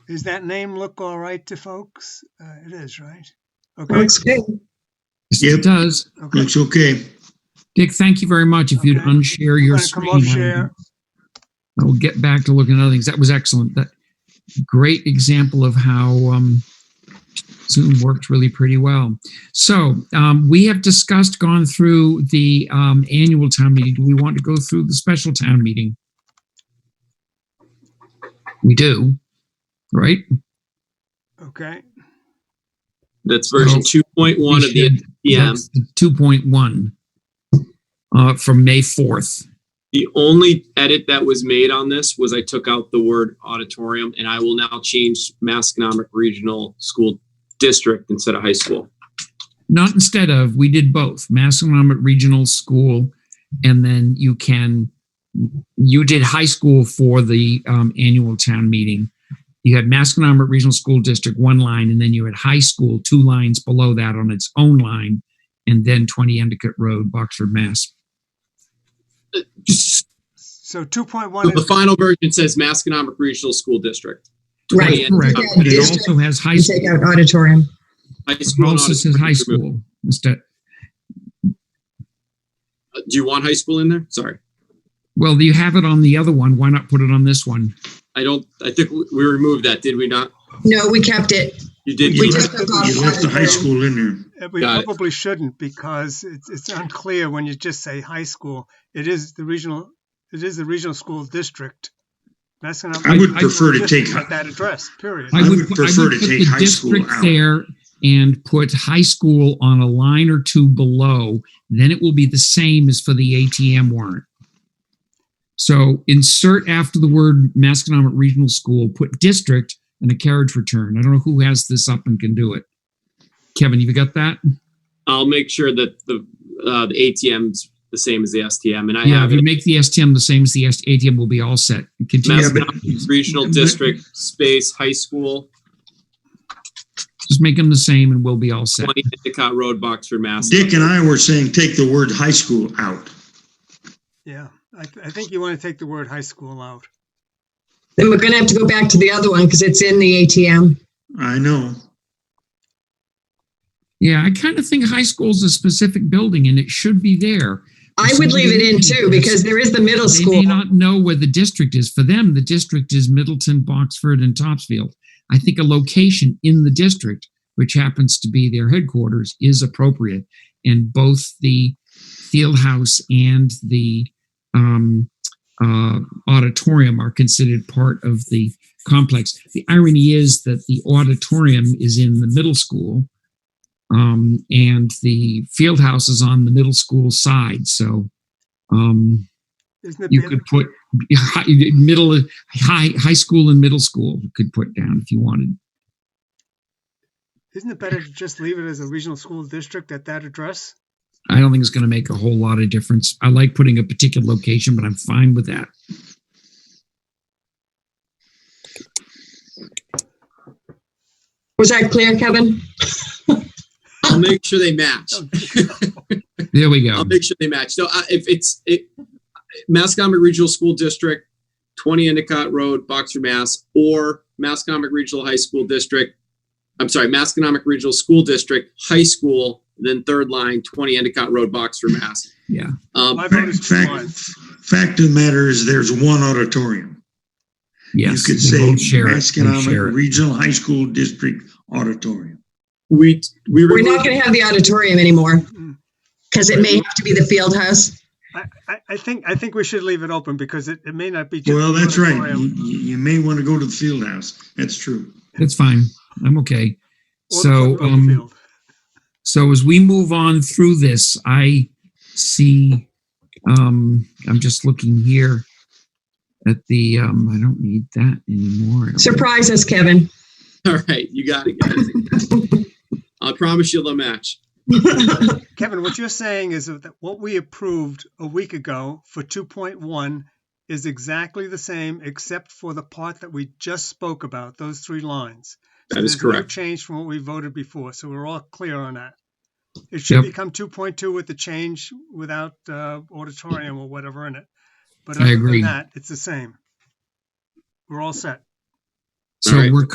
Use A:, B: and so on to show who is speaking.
A: Does that name look all right to folks? Uh, it is, right? Okay.
B: Looks good.
C: Yes,
D: Yep.
C: it does.
A: Okay.
D: Looks okay.
C: Dick, thank you very much. If you'd
A: Okay.
C: unshare your
A: gonna come
C: screen.
A: off
C: I would-
A: share.
C: I will get back to looking at other things. That was excellent. That great example of how um, Zoom worked really pretty well. So um, we have discussed, gone through the um, annual town meeting. Do we want to go through the special town meeting? We do, right?
A: Okay.
E: That's version
C: Well,
E: two point one
C: We
E: of the
C: should.
E: NPM.
C: That's the 2.1 uh, from May 4th.
E: The only edit that was made on this was I took out the word auditorium and I will now change Masconomic Regional School District instead of high school.
C: Not instead of, we did both, Massanutten Regional School, and then you can, you did high school for the um, annual town meeting. You had Massanutten Regional School District, one line, and then you had high school, two lines below that on its own line, and then 20 Endicott Road, Boxford, Mass.
E: So
A: So 2.1
E: the
A: is
E: final version says Masconomic Regional School District.
B: Right.
E: Yeah,
C: Correct,
E: okay.
C: but it also has high
B: You
C: school.
B: take out auditorium.
E: High
C: It
E: school and
C: also says
E: auditorium
C: high
E: removed.
C: school instead.
E: Uh, Do you want high school in there? Sorry.
C: Well, you have it on the other one. Why not put it on this one?
E: I don't, I think we- we removed that, did we not?
B: No, we kept it.
E: You did.
D: You
B: We
E: keep it.
B: took
D: left-
B: out
D: you left the high
B: auditorium.
D: school in there.
A: Uh, We
E: Got it.
A: probably shouldn't because it's, it's unclear when you just say high school. It is the regional, it is the regional school district. That's gonna.
D: I would prefer to
A: District
D: take-
A: with That address, period.
D: I would prefer to
C: put
D: take
C: the
D: high school
C: district
D: out.
C: There and put high school on a line or two below, then it will be the same as for the ATM warrant. So insert after the word Masconomet Regional School, put district and a carriage return. I don't know who has this up and can do it. Kevin, you got that?
E: I'll make sure that the, uh, the ATM's the same as the STM and I
C: Yeah,
E: have
C: if
E: it.
C: you make the STM the same as the S- ATM, we'll be all set. Continue,
D: Yeah, but-
E: Masconomic Regional District, space, high school,
C: just make them the same and we'll be all set.
E: twenty Endicott Road, Boxford, Mass.
D: Dick and I were saying, take the word high school out.
A: Yeah, I, I think you want to take the word high school out.
B: Then we're gonna have to go back to the other one because it's in the ATM.
D: I know.
C: Yeah, I kind of think high school's a specific building and it should be there.
B: I would leave it in too because there is the middle
C: They
B: school.
C: may not know where the district is. For them, the district is Middleton, Boxford, and Topsfield. I think a location in the district, which happens to be their headquarters, is appropriate. And both the field house and the um, uh, auditorium are considered part of the complex. The irony is that the auditorium is in the middle school, um, and the field house is on the middle school side. So. Um,
A: Isn't it?
C: you
A: the
C: could put hi- middle, high, high school and middle school you could put down if you wanted.
A: other- Isn't it better to just leave it as a regional school district at that address?
C: I don't think it's going to make a whole lot of difference. I like putting a particular location, but I'm fine with that.
B: Was that clear, Kevin?
E: I'll make sure they match.
A: Oh,
C: There we go.
E: I'll make sure they match. So uh, if it's it, Mascomic Regional School District, 20 Endicott Road, Boxer, Mass, or Mascomic Regional High School District, I'm sorry, Masconomic Regional School District, high school, then third line, 20 Endicott Road, Boxer, Mass.
C: Yeah.
E: Um,
A: My vote
D: Fact,
A: is two
D: fact,
A: lines.
D: fact of the matter is, there's one auditorium. You
C: Yes.
D: could
C: they
D: say
C: both share it. They share
D: Masconomic
C: it.
D: Regional High School District Auditorium.
E: we, we
B: We're
E: removed
B: not gonna have the auditorium anymore
A: Mm.
B: because it may have to be the field house.
A: I, I, I think, I think we should leave it open because it, it may not be. just
D: Well,
A: the
D: that's right. You,
A: auditorium
D: you you may want to go to the field house. That's true.
C: That's fine. I'm okay.
A: or the
C: So,
A: football
C: um,
A: field.
C: So as we move on through this, I see, um, I'm just looking here at the, um, I don't need that anymore. I don't-
B: Surprise us, Kevin.
E: All right, you got it, guys. I promise you'll match.
A: Kevin, what you're saying is that what we approved a week ago for 2.1 is exactly the same, except for the part that we just spoke about, those three lines. So
E: That is
A: there's no
E: correct.
A: Change from what we voted before, so we're all clear on that. It
C: Yep.
A: should become 2.2 with the change without uh, auditorium or whatever in it. But
C: I
A: other
C: agree.
A: than that, it's the same. We're all set.
C: So
E: All right.
C: we're